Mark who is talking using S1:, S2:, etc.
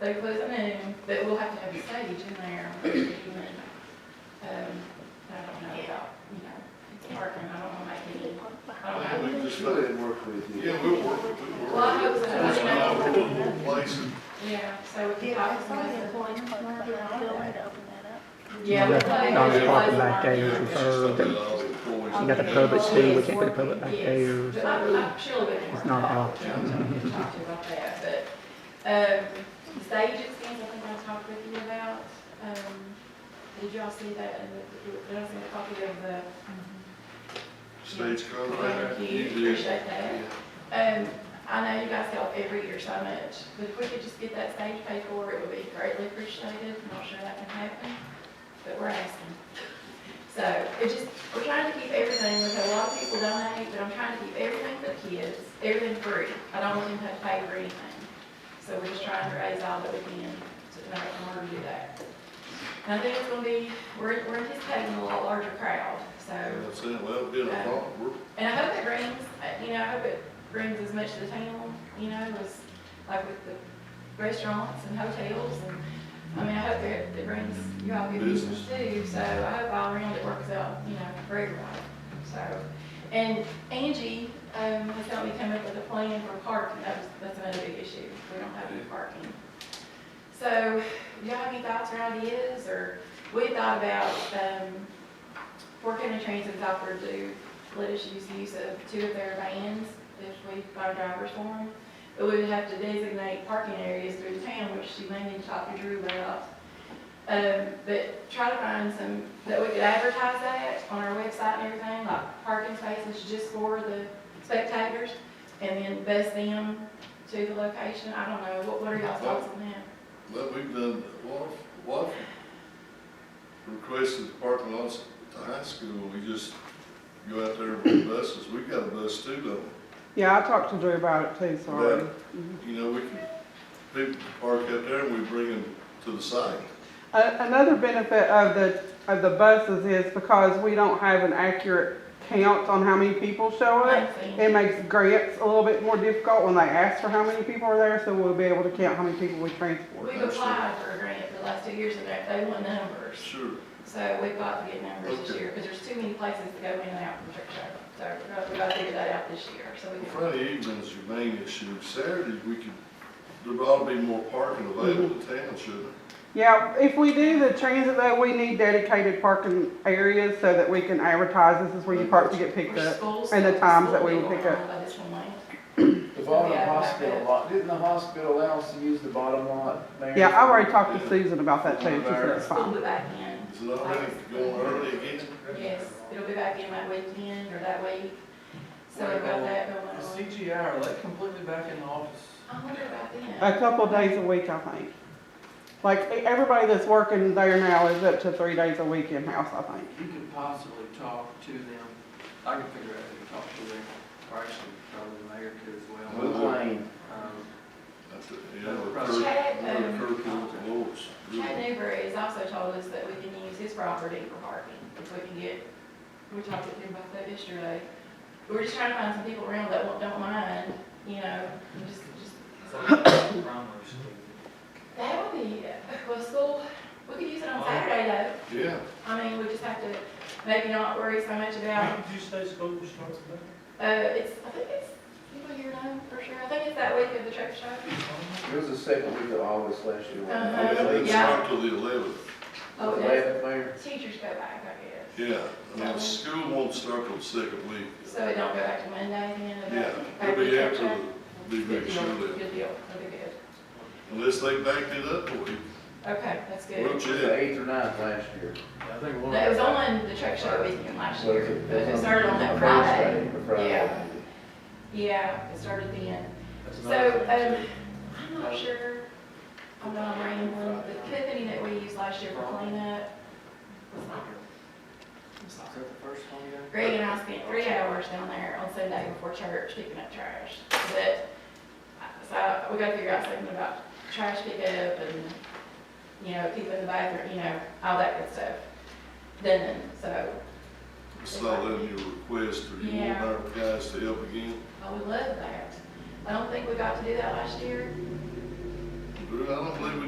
S1: They close at noon, but we'll have to have stage in there for the evening. Um, I don't know about, you know, it's parking, I don't wanna make any, I don't know.
S2: We just-
S3: Just let it work with you.
S2: Yeah, we'll work, with- we'll
S1: Well, I
S2: work.
S1: hope so.
S2: It's not a horrible place, and
S1: Yeah, so we can
S4: Yeah,
S1: talk
S4: I
S1: to
S4: saw the
S1: them.
S4: employees parked behind the building to open that up.
S1: Yeah, we
S5: Yeah,
S1: play.
S5: Don's
S1: we play
S5: parking
S1: some
S5: back
S1: market.
S5: there.
S2: it's just something that all the employees.
S5: You got the public too, we can't put the public back there,
S1: But I'm, I'm sure we can.
S5: It's not all.
S1: Yeah, I'm gonna Talk to you about that, but, um, stage expense, I think I talked with you about, um, did y'all see that in the, did I send a copy of the
S2: Stage contract.
S1: Thank you, appreciate that. Um, I know you guys help every year so much, but if we could just get that stage paid for, it would be greatly appreciated. I'm not sure that can happen, but we're asking. So it just, we're trying to keep everything, we've had a lot of people donate, but I'm trying to keep everything for the kids, everything free. I don't want them to have to pay for anything. So we're just trying to raise all that we can to, in order to do that. And I think it's gonna be, we're, we're anticipating a lot larger crowd, so
S2: Yeah, That's it, well, it'll be a thought, we're,
S1: and I hope it brings, uh, you know, I hope it brings as much to the town, you know, as like with the restaurants and hotels and, I mean, I hope it, it brings you all good business too, so I hope all around it works out, you know, for everybody, so. And Angie, um, has helped me come up with a plan for parking, that's, that's another big issue, we don't have any parking. So, do y'all have any thoughts or ideas, or we thought about, um, Fort County Transit's offered to let us use use of two of their vans if we buy drivers for them. But we would have to designate parking areas through the town, which she may need to talk to Drew about. Um, but try to find some, that we could advertise that on our website and everything, like parking spaces just for the spectators, and then bus them to the location. I don't know, what, what are y'all thoughts on that?
S2: well, we've done, what, what? Requested the parking lots at the high school, we just go out there with buses, we've got a bus too, though.
S6: Yeah, I talked to Drew about it too, sorry.
S2: You know, we can, people park up there and we bring them to the site.
S6: A- Another benefit of the, of the buses is because we don't have an accurate count on how many people show up. It makes grants a little bit more difficult when they ask for how many people are there, so we'll be able to count how many people we transport.
S1: We've applied for a grant the last two years and they- they want numbers.
S2: Sure.
S1: So we've got to get numbers this
S2: Okay.
S1: year, because there's too many places to go in and out from Trick Show. So we've got- we've got to figure that out this year, so we can.
S2: Friday evening's your main issue, Saturday, we could, there ought to be more parking available in town, shouldn't there?
S6: Yeah, if we do the transit though, we need dedicated parking areas so that we can advertise this is where you park to get picked
S1: We're
S6: up.
S1: schools-
S6: and the times that we
S1: school
S6: would
S1: people
S6: pick
S1: are on this one lane.
S3: The bottom hospital lot, didn't the hospital allow us to use the bottom lot, Mayor?
S6: Yeah, I already talked to Susan about that too, she said it's
S1: School
S6: fine.
S1: will be back in,
S2: Is it already going early again?
S1: yes, it'll be back in that weekend or that week. So we've got that going
S7: The
S1: on.
S7: CGI, are they completely back in the office?
S1: I wonder about them.
S6: A couple days a week, I think. Like, e- everybody that's working there now is up to three days a week in-house, I think.
S7: You could possibly talk to them, I can figure out who to talk to them, or actually probably the mayor too as
S3: Wood
S7: well.
S3: Lane,
S7: Um,
S2: That's it, Yeah, or Kirk,
S1: Chad,
S2: or
S1: um,
S2: Kirk or Lawrence.
S1: Chad Newberry has also told us that we can use his property for parking, if we can get, we talked with him about that yesterday. We're just trying to find some people around that won't- don't mind, you know, and just, just, that would be, well, school, we could use it on Saturday though.
S2: Yeah,
S1: I mean, we just have to maybe not worry so much about,
S8: Did you say school starts back?
S1: uh, it's, I think it's, people here know for sure, I think it's that week of the truck show.
S3: it was the second week of August last year. wasn't
S1: Uh-huh.
S3: Oh, it?
S2: it didn't
S1: Yeah.
S2: start till the eleventh,
S1: Oh, yes,
S3: Eleventh, Mayor?
S1: teachers go back, I guess.
S2: yeah. Now, school won't start till the second week.
S1: So it don't go back to Monday then? about-
S2: Yeah,
S1: back
S2: it'll be
S1: to
S2: after,
S1: Tuesday?
S2: the- be
S1: Good
S2: make sure
S1: deal,
S2: that,
S1: Good deal, that'd be good.
S2: unless they backed it up a week,
S1: Okay, that's
S2: we'll
S1: good.
S3: It was the
S2: check.
S3: eighth or ninth last year.
S7: I think one
S1: That
S7: of
S1: was
S7: them,
S1: on the truck show weekend last
S3: So
S1: year,
S3: it-
S1: but it started on that Friday.
S3: Thursday, the Friday.
S1: Yeah. Yeah, it started then.
S7: that's
S1: So,
S7: another thing too.
S1: um, I'm not sure, I'm not rambling, the company that we used last year for cleanup was not
S7: Is that the first one you got?
S1: Greg and I spent three hours down there on Sunday before church picking up trash, but, uh, so we gotta figure out something about trash pickup and, you know, keeping the bathroom, you know, all that good stuff. Then, so,
S2: It's not letting you request or you want
S1: Yeah.
S2: our guys to help again.
S1: I would love that. I don't think we got to do that last year,
S2: I don't believe we